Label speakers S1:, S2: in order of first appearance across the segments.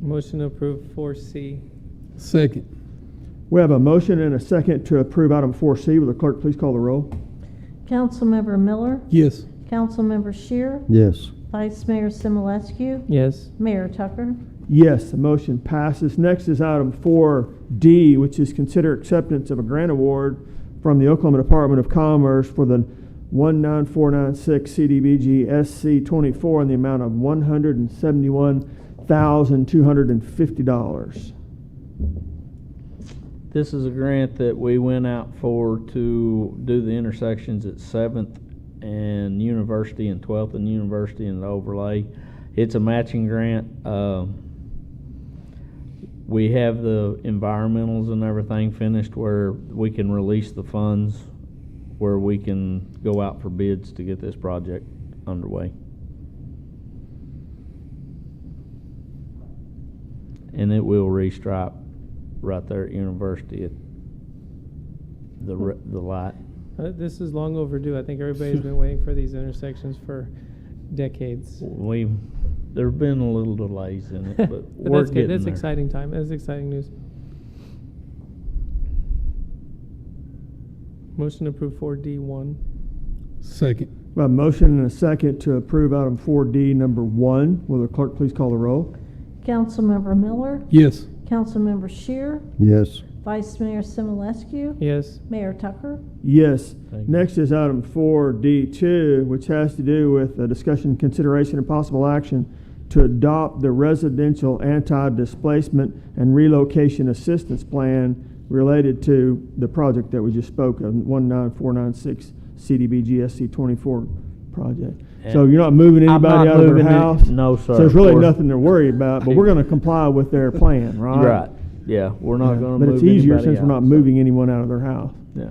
S1: Motion to approve 4C.
S2: Second.
S3: We have a motion and a second to approve item 4C. Will the clerk please call the roll?
S4: Councilmember Miller,
S2: Yes.
S4: Councilmember Shear,
S5: yes,
S4: Vice Mayor Simulescu,
S1: Yes.
S4: Mayor Tucker.
S3: Yes, the motion passes. Next is item 4D, which is consider acceptance of a grant award from the Oklahoma Department of Commerce for the 19496 CDBG SC 24 in the amount of $171,250.
S6: This is a grant that we went out for to do the intersections at Seventh and University and Twelfth and University and the overlay. It's a matching grant. Um, We have the environmentals and everything finished where we can release the funds, where we can go out for bids to get this project underway. And it will restripe right there at University at
S1: Hmm.
S6: the, re- the light.
S1: Uh, This is long overdue. I think everybody's been waiting for these intersections for decades.
S6: We've, there've been a little delays in it, but
S1: But
S6: we're
S1: that's good.
S6: getting
S1: That's
S6: there.
S1: exciting time. That's exciting news. Motion to approve 4D1.
S2: Second.
S3: We have a motion and a second to approve item 4D number 1. Will the clerk please call the roll?
S4: Councilmember Miller,
S2: Yes.
S4: Councilmember Shear,
S5: yes,
S4: Vice Mayor Simulescu,
S1: Yes.
S4: Mayor Tucker.
S3: Yes.
S6: Thank you.
S3: Next is item four D two, which has to do with a discussion, consideration, and possible action to adopt the residential anti-displacement and relocation assistance plan related to the project that we just spoke of, one nine four nine six CDBG SC twenty-four project. So
S6: And-
S3: you're not moving
S6: I'm not
S3: anybody out of their
S6: moving it.
S3: house?
S6: No,
S3: So
S6: sir.
S3: there's really
S6: We're-
S3: nothing to worry about, but we're gonna comply with their plan, right?
S6: Right, yeah, we're not
S3: Yeah.
S6: gonna move
S3: But it's easier
S6: anybody
S3: since we're
S6: out,
S3: not
S6: so-
S3: moving anyone out of their house.
S6: Yeah.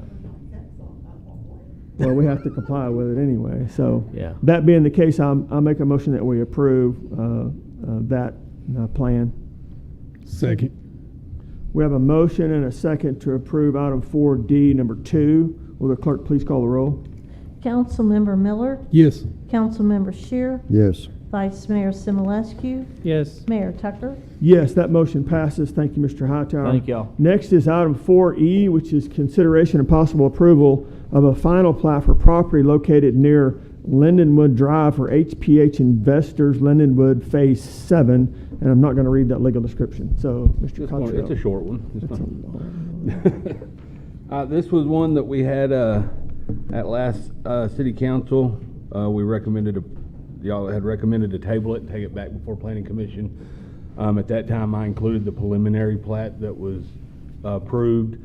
S3: Well, we have to comply with it anyway, so.
S6: Yeah.
S3: That being the case, I'm, I make a motion that we approve, uh, uh, that, uh, plan.
S2: Second.
S3: We have a motion and a second to approve item four D, number two. Will the clerk please call the roll?
S4: Councilmember Miller,
S2: Yes.
S4: Councilmember Shear,
S5: yes,
S4: Vice Mayor Simulescu,
S1: Yes.
S4: Mayor Tucker.
S3: Yes, that motion passes. Thank you, Mr. Hightower.
S6: Thank y'all.
S3: Next is item four E, which is consideration and possible approval of a final plat for property located near Lindenwood Drive for HPH Investors, Lindenwood Phase Seven. And I'm not going to read that legal description. So, Mr.
S7: Just one-
S3: Cottrell.
S7: It's a short one. It's
S3: It's a
S7: fine.
S3: long-
S7: Uh, This was one that we had uh, at last uh, city council. Uh, We recommended, a- y'all had recommended to table it and take it back before planning commission. Um, At that time, I included the preliminary plat that was uh, approved,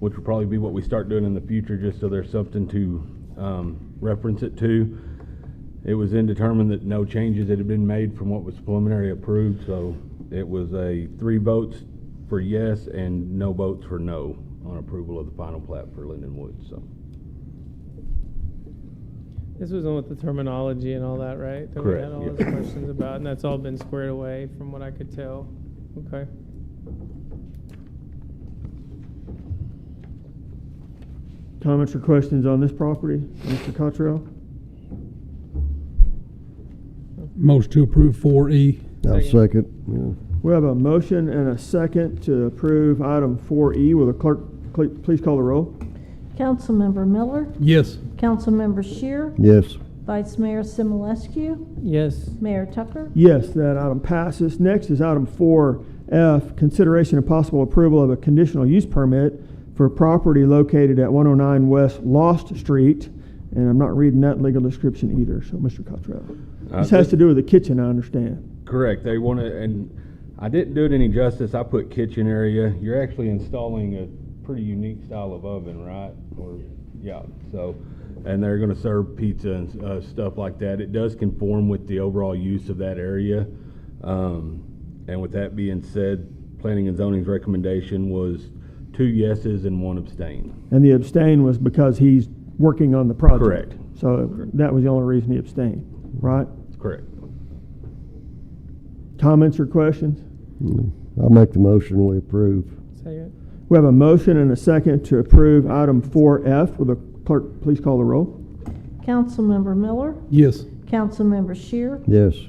S7: which will probably be what we start doing in the future, just so there's something to um, reference it to. It was then determined that no changes had been made from what was preliminary approved, so it was a three votes for yes and no votes for no on approval of the final plat for Linden Woods, so.
S1: This was on with the terminology and all that, right? That
S7: Correct,
S1: we had all
S7: yeah.
S1: those questions about, and that's all been squared away from what I could tell. Okay.
S3: Comments or questions on this property, Mr. Cottrell?
S2: Motion to approve four E.
S5: I'll
S1: Second.
S5: second,
S3: We have a motion and a second to approve item four E. Will the clerk cle- please call the roll?
S4: Councilmember Miller,
S2: Yes.
S4: Councilmember Shear,
S5: yeah, yes,
S4: Vice Mayor Simulescu,
S1: Yes.
S4: Mayor Tucker.
S3: Yes, that item passes. Next is item four F, consideration and possible approval of a conditional use permit for property located at one oh nine West Lost Street. And I'm not reading that legal description either, so Mr. Cottrell.
S7: Uh,
S3: This has
S7: thi-
S3: to do with the kitchen, I understand.
S7: Correct, they want to, and I didn't do it any justice, I put kitchen area. You're actually installing a pretty unique style of oven, right? Or, yeah, so, and they're going to serve pizza and uh, stuff like that. It does conform with the overall use of that area. Um, And with that being said, planning and zoning's recommendation was two yeses and one abstain.
S3: And the abstain was because he's working on the project.
S7: Correct.
S3: So that was the only reason he abstained, right?
S7: Correct.
S3: Comments or questions?
S5: I'll make the motion, we approve,
S1: Second.
S3: We have a motion and a second to approve item four F. Will the clerk please call the roll?
S4: Councilmember Miller,
S2: Yes.
S4: Councilmember Shear,
S5: yes.